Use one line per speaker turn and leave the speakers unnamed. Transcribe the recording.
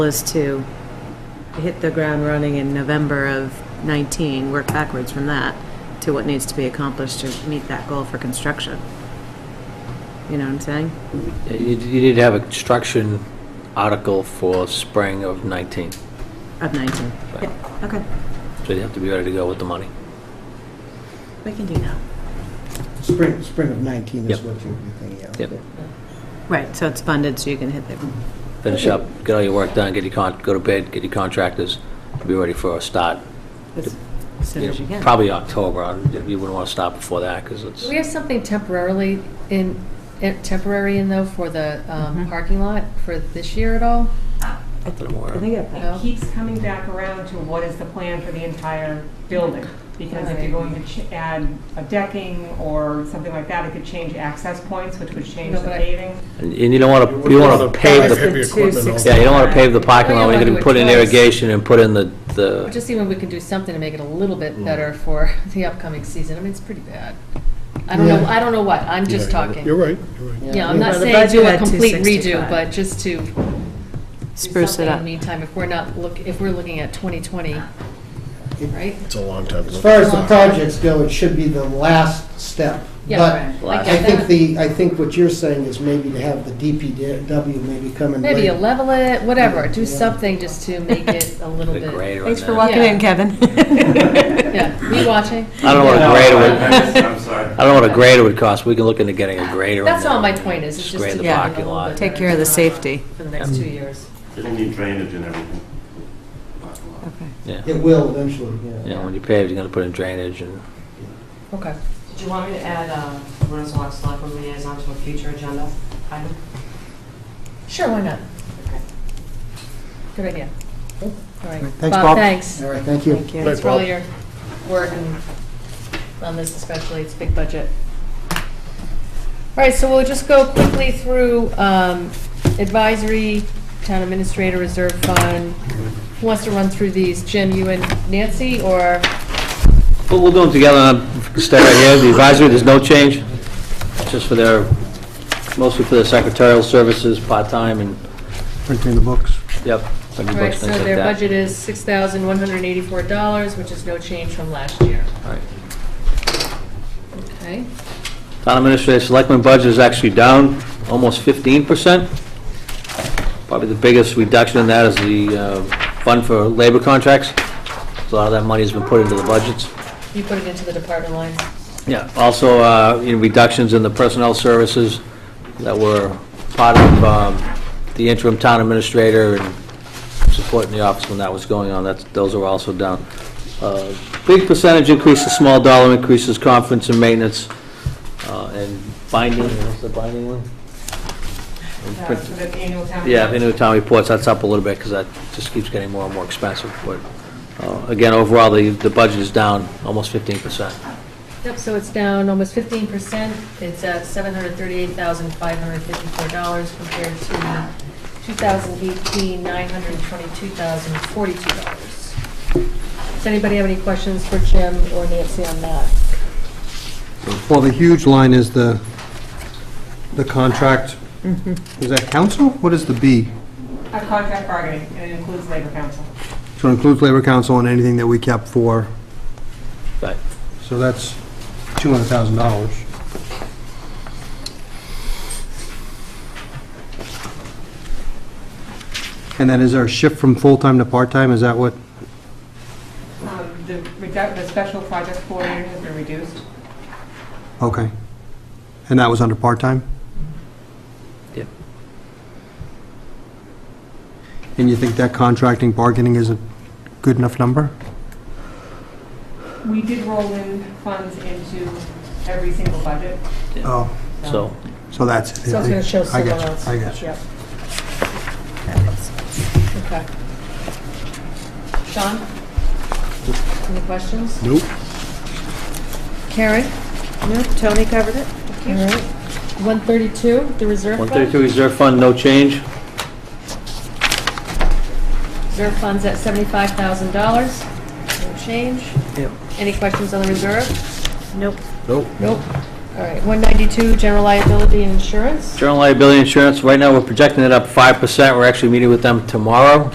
is to hit the ground running in November of 19, work backwards from that to what needs to be accomplished to meet that goal for construction. You know what I'm saying?
Yeah, You you need to have a construction article for spring of 19, so
Of 19.
Right.
Yeah, okay.
you have to be ready to go with the money.
We can do that.
Spring, spring of 19 is
Yep.
what you'd be thinking of.
Yep.
Right, so it's funded, so you can hit the,
Finish up, get all your work done, get your con, go to bed, get your contractors, be ready for a start.
as as soon as you can.
Probably October, I- you wouldn't want to stop before that, because it's,
Do we have something temporarily in, eh, temporary in though for the um,
Mhm.
parking lot for this year at all?
nothing to
I
worry
think
about.
it-
No?
It keeps coming back around to what is the plan for the entire building? Because if you're going to ch- add a decking or something like that, it could change access points, which would change
No,
the
but I-
And
paving.
and you don't want to, you want to pave
That was
the,
the
equipment all-
260.
yeah, you don't want to pave the parking lot,
We
when
don't
you
wanna
can put in
do it twice.
irrigation and put in the, the,
Just even we can do something to make it a little bit better for the upcoming season. I mean, it's pretty bad. I don't know,
Yeah.
I don't know what, I'm just talking.
You're right, you're right.
Yeah, I'm not
Well, the
saying
budget
do a
had
complete
265.
redo, but just to do
Spruce
something
it
in
up.
the meantime, if we're not look, if we're looking at 2020, right?
It's a long time. to
As
look.
far as the projects go, it should be the last step.
Yeah,
But
right.
Last-
I
get
think
that.
the, I think what you're saying is maybe to have the DPW maybe come and.
Maybe
lay-
you level it, whatever, do
Yeah.
something just to make it a little
the
bit.
grader.
Thanks
and
for
that.
walking in,
Yeah.
Kevin.
Yeah, me watching.
I don't know what a
Yeah.
grader would,
I'm sorry.
I don't know what a grader would cost, we can look into getting a grader.
That's
in there
all my
and
point is, it's just
Grade
to
the
Yeah.
parking lot.
Take care of the safety.
for the next two years.
It'll need drainage and everything.
Okay.
Yeah,
It will eventually,
you know,
yeah.
when you pave, you're gonna put in drainage and,
Okay.
Do you want me to add uh, Renaissance Selectmen liaison to a future agenda item?
Sure, why not?
Okay.
Good idea. All right.
Thanks, Bob.
Thanks.
All right, thank you.
Thank you.
Thanks for
Bob.
all your work and on this especially, it's a big budget. All right, so we'll just go quickly through um, advisory, town administrator, reserve fund. Who wants to run through these? Jim, you and Nancy, or?
but we'll do them together, and stay right here, the advisory, there's no change, It's just for their, mostly for their secretarial services, part-time and,
Printing the books.
yep, like
All right,
books,
so
things like
their
that.
budget is $6,184, which is no change from last year.
All right.
Okay.
Town administrator, selectmen budget is actually down almost 15%. Probably the biggest reduction in that is the uh, fund for labor contracts. So A lot of that money has been put into the budgets.
You put it into the department line.
Yeah, also, uh, in reductions in the personnel services that were part of um, the interim town administrator and supporting the office when that was going on, that's, those are also down. Uh, Big percentage increase, a small dollar increases, conference and maintenance, uh, and binding, what's the binding one? And
That's for
print-
Uh, the annual town.
Yeah,
meeting.
annual town reports, that's up a little bit, because that just keeps getting more and more expensive, but, uh, again, overall, the, the budget is down almost 15%.
Yep, so it's down almost fifteen percent. It's at seven hundred thirty-eight thousand, five hundred fifty-four dollars compared to two thousand eighteen, nine hundred twenty-two thousand, forty-two dollars. Does anybody have any questions for Jim or Nancy on that?
Well, the huge line is the, the contract, is that council? What is the B?
A contract bargaining, and it includes labor council.
So it includes labor council and anything that we kept for,
Right.
so that's $200,000. And that is our shift from full-time to part-time, is that what?
Um, The redu- the special project coordinator has been reduced.
Okay. And that was under part-time?
Yep.
And you think that contracting bargaining is a good enough number?
We did roll in funds into every single budget.
Oh,
So,
so that's it.
So it's gonna show
I
someone
get you,
else.
I get you.
Yep. Okay. Sean? Any questions?
Nope.
Karen?
No, Tony covered it?
All right. One thirty-two, the reserve fund?
132 Reserve Fund, no change.
Reserve fund's at seventy-five thousand dollars, no change.
Yep.
Any questions on the reserve?
Nope.
Nope.
Nope. All right, one ninety-two, general liability and insurance.
General liability insurance, right now, we're projecting it up 5%. We're actually meeting with them tomorrow